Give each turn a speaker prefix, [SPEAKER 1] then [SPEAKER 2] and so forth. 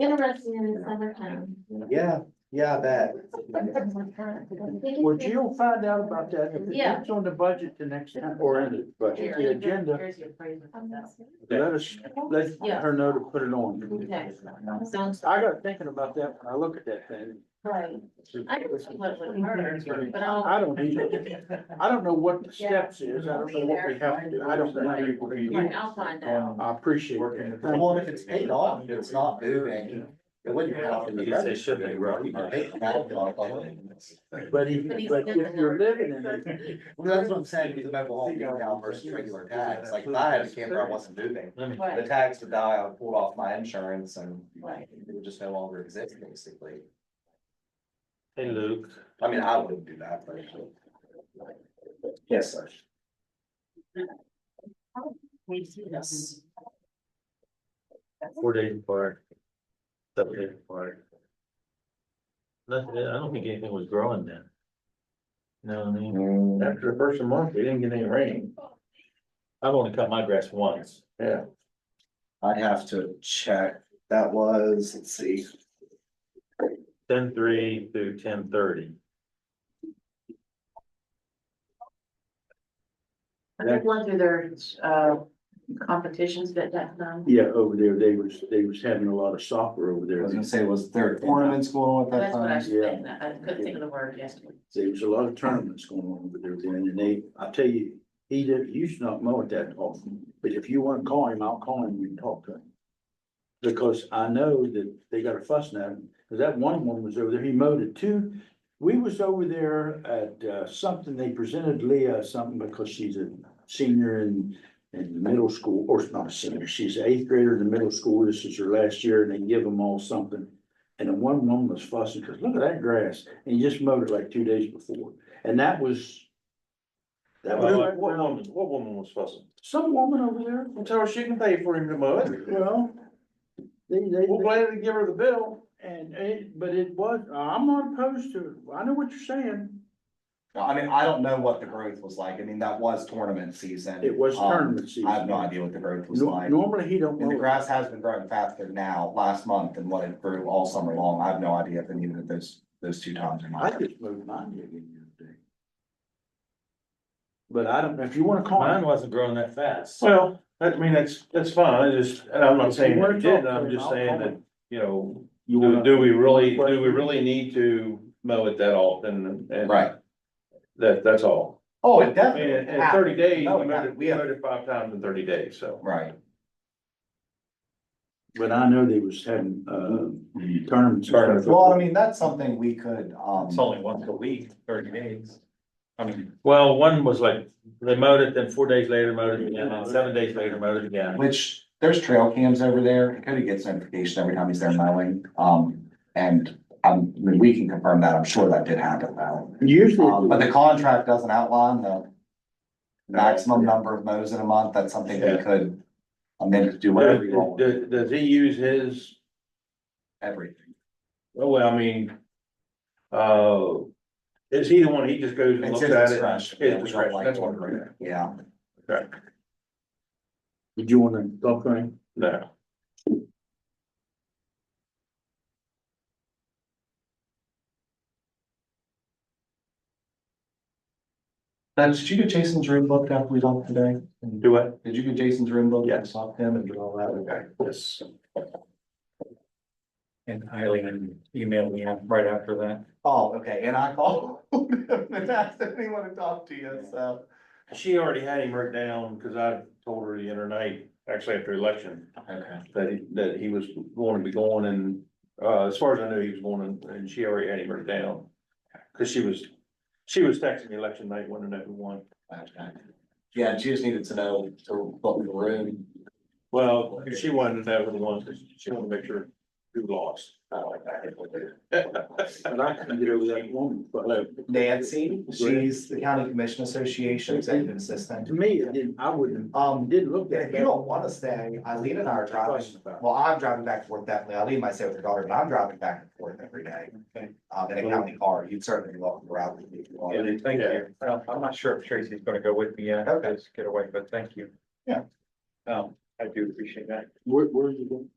[SPEAKER 1] Interesting in the summertime.
[SPEAKER 2] Yeah, yeah, I bet.
[SPEAKER 3] Would you find out about that? If
[SPEAKER 1] Yeah.
[SPEAKER 3] it's on the budget the next time or in the budget, the agenda, let us, let
[SPEAKER 1] Yeah.
[SPEAKER 3] her know to put it on.
[SPEAKER 1] Okay. Sounds
[SPEAKER 3] I got thinking about that when I look at that thing.
[SPEAKER 1] right. I don't see what would hurt, but I'll.
[SPEAKER 3] I don't either. I don't know what the steps is. I don't know what we have to do. I don't
[SPEAKER 1] Right,
[SPEAKER 3] know.
[SPEAKER 1] I'll find out.
[SPEAKER 3] I appreciate it.
[SPEAKER 2] Well, if it's paid off, if it's not moving, it wouldn't have to be.
[SPEAKER 4] They should be, right?
[SPEAKER 2] You can pay the valve off of it.
[SPEAKER 3] But if,
[SPEAKER 1] But he's
[SPEAKER 3] but if
[SPEAKER 1] living
[SPEAKER 3] you're
[SPEAKER 1] there.
[SPEAKER 3] living in it,
[SPEAKER 2] Well, that's what I'm saying, because the mobile home being down versus regular tax, like if I had a camper, I wasn't moving. The
[SPEAKER 1] Right,
[SPEAKER 2] tax would die, I would pull off my insurance and
[SPEAKER 1] right.
[SPEAKER 2] it would just no longer exist, basically.
[SPEAKER 4] Hey, Luke.
[SPEAKER 2] I mean, I wouldn't do that, but. Yes, sir. Yes.
[SPEAKER 4] Four days apart. Seven days apart. Nothing, I don't think anything was growing then. No, I mean,
[SPEAKER 2] Mm.
[SPEAKER 4] after the first of the month, we didn't get any rain. I've only cut my grass once.
[SPEAKER 3] yeah.
[SPEAKER 2] I'd have to check. That was, let's see,
[SPEAKER 4] ten three through ten thirty.
[SPEAKER 5] I think one through their, uh, competitions that that time.
[SPEAKER 3] Yeah, over there, they was, they was having a lot of soccer over
[SPEAKER 2] I
[SPEAKER 3] there.
[SPEAKER 2] was gonna say, was there tournaments going on at that
[SPEAKER 5] That's what I
[SPEAKER 2] time?
[SPEAKER 5] was thinking. I couldn't think of the word yesterday.
[SPEAKER 3] There was a lot of tournaments going on over there, then, and they, I tell you, he did, you should not mow it that often, but if you wanna call him, I'll call him and talk to him. Because I know that they got a fuss now, because that one woman was over there, he mowed it too. We was over there at, uh, something, they presented Leah something because she's a senior in, in middle school, or it's not a senior, she's an eighth grader in the middle school, this is her last year, and they give them all something. And the one woman was fussing, because look at that grass, and you just mowed it like two days before, and that was. That
[SPEAKER 4] What
[SPEAKER 3] was
[SPEAKER 4] woman, what woman was fussing?
[SPEAKER 3] some woman over there,
[SPEAKER 4] Well, tell her she can pay for him to mow it.
[SPEAKER 3] well, they, they,
[SPEAKER 4] We'll gladly give her the bill.
[SPEAKER 3] and it, but it was, I'm not opposed to, it. I know what you're saying.
[SPEAKER 2] No, I mean, I don't know what the growth was like. I mean, that was tournament season.
[SPEAKER 3] It was
[SPEAKER 2] Um,
[SPEAKER 3] tournament season.
[SPEAKER 2] I have no idea what the growth was
[SPEAKER 3] Nor-
[SPEAKER 2] like.
[SPEAKER 3] Normally, he don't
[SPEAKER 2] And the
[SPEAKER 3] mow, it.
[SPEAKER 2] grass has been growing faster now, last month than what it grew all summer long. I have no idea if any of those, those two times or
[SPEAKER 3] I
[SPEAKER 2] not.
[SPEAKER 3] just mowed mine again the other day. But I don't, if you wanna call.
[SPEAKER 4] Mine wasn't growing that fast.
[SPEAKER 6] Well, I mean, that's, that's fine, I just, and I'm not saying
[SPEAKER 3] If you
[SPEAKER 6] that
[SPEAKER 3] wanna
[SPEAKER 6] you
[SPEAKER 3] talk
[SPEAKER 6] did,
[SPEAKER 3] to
[SPEAKER 6] I'm
[SPEAKER 3] him,
[SPEAKER 6] just
[SPEAKER 3] I'll
[SPEAKER 6] saying
[SPEAKER 3] call
[SPEAKER 6] that,
[SPEAKER 3] him.
[SPEAKER 6] you know,
[SPEAKER 3] You
[SPEAKER 6] do,
[SPEAKER 3] wanna,
[SPEAKER 6] do we really, do we really need to mow it that often? And
[SPEAKER 2] Right.
[SPEAKER 6] That, that's all.
[SPEAKER 2] Oh, it
[SPEAKER 6] I mean, in, in thirty days, we mowed it, we mowed it five times in thirty days, so.
[SPEAKER 2] Right.
[SPEAKER 3] but I know they was having, uh, tournaments.
[SPEAKER 6] Tournaments.
[SPEAKER 2] Well, I mean, that's something we could, um.
[SPEAKER 4] It's only once a week, thirty days. I mean. Well, one was like, they mowed it, then four days later mowed it again, and seven days later mowed it again.
[SPEAKER 2] Which, there's trail cams over there, Cody gets notification every time he's there mowing, um, and, um, I mean, we can confirm that, I'm sure that did happen though. Um, but
[SPEAKER 3] Usually,
[SPEAKER 2] the contract doesn't outline the maximum number of mows in a month, that's something we
[SPEAKER 6] Yeah.
[SPEAKER 2] could amend to do whatever you
[SPEAKER 6] Does,
[SPEAKER 2] want, with
[SPEAKER 6] does- does he use his,
[SPEAKER 2] everything.
[SPEAKER 4] Oh,
[SPEAKER 6] well, I mean, uh, is he the one, he just goes and
[SPEAKER 2] It's
[SPEAKER 6] looks
[SPEAKER 2] his
[SPEAKER 6] at it?
[SPEAKER 2] discretion.
[SPEAKER 6] His
[SPEAKER 2] Yeah, we don't
[SPEAKER 6] discretion,
[SPEAKER 2] like
[SPEAKER 6] that's
[SPEAKER 2] what
[SPEAKER 6] what
[SPEAKER 2] we're
[SPEAKER 6] I'm-
[SPEAKER 2] Yeah,
[SPEAKER 3] did you wanna talk to him?
[SPEAKER 6] No,
[SPEAKER 2] now, did you get Jason's room booked after we talked today?
[SPEAKER 6] do I?
[SPEAKER 2] Did you get Jason's room booked?
[SPEAKER 6] Yes.
[SPEAKER 2] Talk to him and do all that, okay.
[SPEAKER 6] Yes.
[SPEAKER 7] And Eileen emailed me out right after that.
[SPEAKER 2] Oh, okay, and I called him and asked if he wanted to talk to you, so.
[SPEAKER 6] She already had him written down, cause I told her the other night, actually after election,
[SPEAKER 2] Okay.
[SPEAKER 6] that he, that he was going to be going and, uh, as far as I knew, he was going and- and she already had him written down. Cause she was, she was texting me election night, wanting to know who won.
[SPEAKER 2] Okay. Yeah, she just needed to know to book the room.
[SPEAKER 6] Well, she wanted to know who the ones, she wanted to make sure who lost.
[SPEAKER 3] But I can get over that woman, but uh,
[SPEAKER 2] Nancy, she's the county commission association executive assistant.
[SPEAKER 3] to me, it didn't, I wouldn't,
[SPEAKER 2] Um,
[SPEAKER 3] didn't look
[SPEAKER 2] if
[SPEAKER 3] that
[SPEAKER 2] you
[SPEAKER 3] bad.
[SPEAKER 2] don't wanna stay, Eileen and I are driving, well, I'm driving back and forth definitely, Eileen might stay with her daughter, but I'm driving back and forth every day.
[SPEAKER 7] Okay.
[SPEAKER 2] Um, in a county car, you'd certainly be welcome to ride with me. if you want.
[SPEAKER 7] Thank you. Well, I'm not sure if Tracy's gonna go with me yet,
[SPEAKER 2] Okay.
[SPEAKER 7] just get away, but thank you.
[SPEAKER 2] Yeah.
[SPEAKER 7] Um, I do appreciate that.
[SPEAKER 3] Where, where are you going?